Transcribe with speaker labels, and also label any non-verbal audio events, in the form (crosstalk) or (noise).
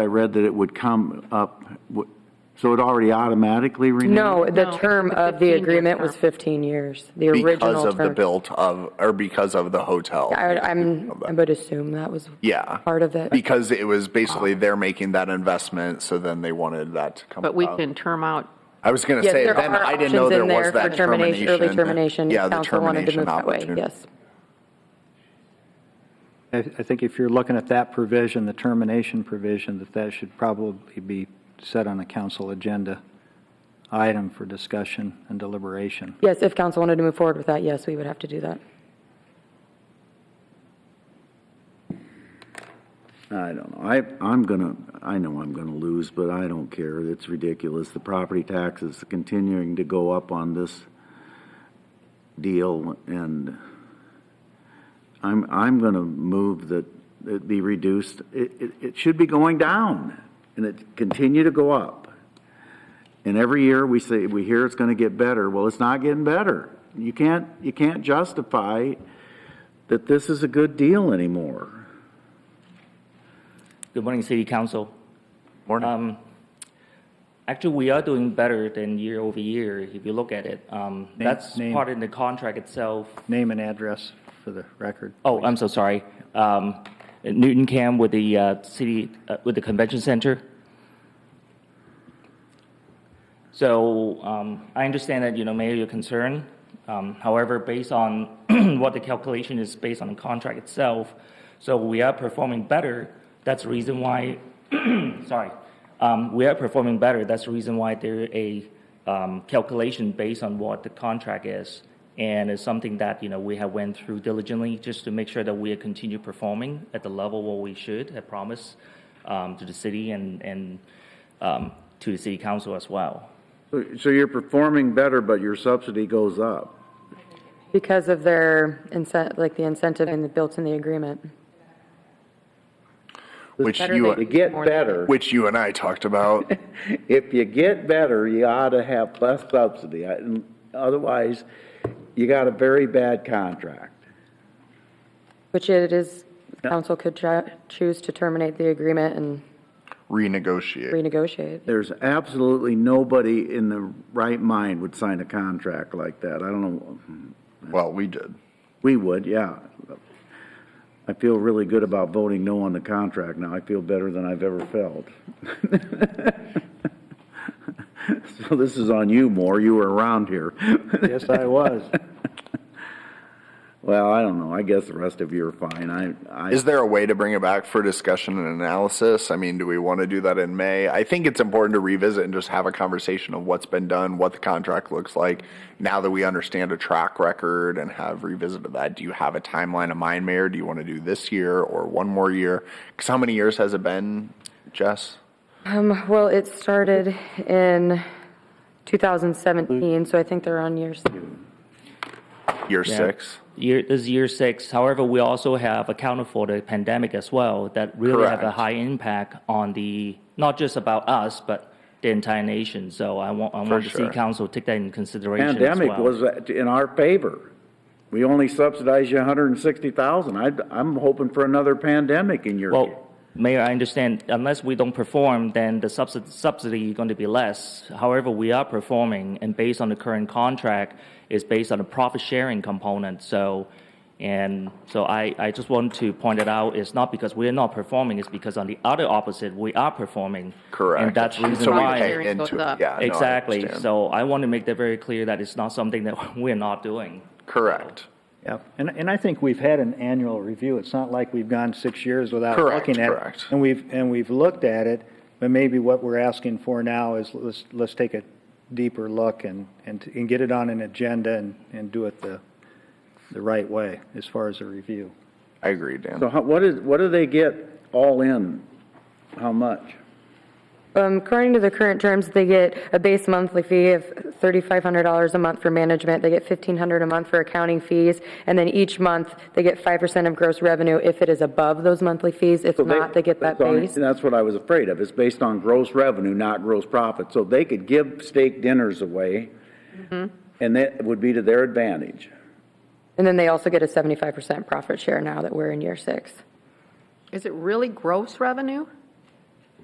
Speaker 1: I read that it would come up, w- so it already automatically renewed?
Speaker 2: No, the
Speaker 3: No,
Speaker 2: term
Speaker 3: it's a
Speaker 2: of the
Speaker 3: 15-year
Speaker 2: agreement was
Speaker 3: term.
Speaker 2: 15 years, the
Speaker 4: because
Speaker 2: original
Speaker 4: of the
Speaker 2: term.
Speaker 4: built of, or because of the hotel.
Speaker 2: I would, I'm, I would assume that was
Speaker 4: Yeah.
Speaker 2: part of it. Um,
Speaker 4: Because it was basically they're making that investment, so then they wanted that to come
Speaker 3: But we
Speaker 4: out.
Speaker 3: can term out,
Speaker 4: I was going to
Speaker 2: Yeah,
Speaker 4: say,
Speaker 2: there
Speaker 4: then
Speaker 2: are
Speaker 4: I didn't know
Speaker 2: options
Speaker 4: there
Speaker 2: in
Speaker 4: was
Speaker 2: there
Speaker 4: that
Speaker 2: for
Speaker 4: termination.
Speaker 2: Early termination,
Speaker 4: Yeah, the
Speaker 2: council wanted to
Speaker 4: termination
Speaker 2: move that way,
Speaker 4: opportunity.
Speaker 2: yes.
Speaker 5: I, I think if you're looking at that provision, the termination provision, that that should probably be set on a council agenda item for discussion and deliberation.
Speaker 2: Yes, if council wanted to move forward with that, yes, we would have to do that.
Speaker 1: I don't know. I, I'm gonna, I know I'm gonna lose, but I don't care. It's ridiculous. The property tax is continuing to go up on this deal and I'm, I'm gonna move that it be reduced. It, it, it should be going down and it continue to go up. And every year we say, we hear it's gonna get better. Well, it's not getting better. You can't, you can't justify that this is a good deal anymore.
Speaker 6: Good morning, City Council. Morning. Actually, we are doing better than year over year, if you look at it. Um, That's
Speaker 5: name.
Speaker 6: part in the contract itself.
Speaker 5: Name and address for the record.
Speaker 6: Oh, I'm so sorry. Um, Newton Cam with the uh, city, uh, with the convention center. So um, I understand that, you know, Mayor, your concern. Um, However, based on (clears throat) what the calculation is based on the contract itself, so we are performing better. That's the reason why, sorry, Um, we are performing better. That's the reason why there a um, calculation based on what the contract is. And it's something that, you know, we have went through diligently just to make sure that we continue performing at the level what we should have promised um, to the city and, and um, to the city council as well.
Speaker 1: So you're performing better, but your subsidy goes up.
Speaker 2: Because of their incentive, like the incentive and the built in the agreement.
Speaker 4: Which
Speaker 3: Better
Speaker 1: You
Speaker 4: you,
Speaker 3: than-
Speaker 1: get better.
Speaker 4: which you and I
Speaker 2: (laughs)
Speaker 4: talked about.
Speaker 1: If you get better, you ought to have less subsidy. I- and Otherwise, you got a very bad contract.
Speaker 2: Which it is, council could cho- choose to terminate the agreement and
Speaker 4: renegotiate.
Speaker 2: renegotiate.
Speaker 1: There's absolutely nobody in the right mind would sign a contract like that. I don't know.
Speaker 4: Well, we did.
Speaker 1: We would, yeah. I feel really good about voting no on the contract now. I feel better than I've ever felt. (laughs) So this is on you, Moore. You were around here.
Speaker 5: Yes, I was.
Speaker 1: Well, I don't know. I guess the rest of you are fine. I, I,
Speaker 4: Is there a way to bring it back for discussion and analysis? I mean, do we want to do that in May? I think it's important to revisit and just have a conversation of what's been done, what the contract looks like. Now that we understand a track record and have revisited that, do you have a timeline in mind, Mayor? Do you want to do this year or one more year? Because how many years has it been, Jess?
Speaker 2: Well, it started in 2017, so I think they're on years.
Speaker 4: Year six?
Speaker 6: Year, this is year six. However, we also have accounted for the pandemic as well that really have a
Speaker 4: Correct.
Speaker 6: high impact on the, not just about us, but the entire nation. So I want, I want the city
Speaker 4: sure.
Speaker 6: council to take that in consideration as
Speaker 1: pandemic
Speaker 6: well.
Speaker 1: was uh, in our favor. We only subsidized you 160,000. I, I'm hoping for another pandemic in your.
Speaker 6: Well, Mayor, I understand unless we don't perform, then the subsidy, subsidy is going to be less. However, we are performing, and based on the current contract, is based on the profit sharing component. So, and so I, I just want to point it out. It's not because we are not performing; it's because on the other opposite, we are performing.
Speaker 4: Correct.
Speaker 6: And that's the reason
Speaker 4: So we
Speaker 6: why.
Speaker 4: pay
Speaker 3: Sharing goes
Speaker 4: into it.
Speaker 3: up.
Speaker 4: Yeah, no, I
Speaker 6: exactly.
Speaker 4: understand.
Speaker 6: So I want to make that very clear that it's not something that (laughs) we're not doing.
Speaker 4: Correct.
Speaker 5: Yeah, and, and I think we've had an annual review. It's not like we've gone six years without
Speaker 4: Correct,
Speaker 5: looking at it.
Speaker 4: correct.
Speaker 5: And we've, and we've looked at it, but maybe what we're asking for now is let's, let's take a deeper look and, and, and get it on an agenda and, and do it the, the right way as far as a review.
Speaker 4: I agree, Dan.
Speaker 1: So how, what is, what do they get all in? How much?
Speaker 2: Um, According to the current terms, they get a base monthly fee of $3,500 a month for management. They get $1,500 a month for accounting fees. And then each month, they get 5% of gross revenue if it is above those monthly fees. If
Speaker 1: So they-
Speaker 2: not, they get that
Speaker 1: that's on-
Speaker 2: base.
Speaker 1: That's what I was afraid of, it's based on gross revenue, not gross profit. So they could give steak dinners away,
Speaker 2: Mm-hmm.
Speaker 1: and that would be to their advantage.
Speaker 2: And then they also get a 75% profit share now that we're in year six.
Speaker 3: is it really gross revenue?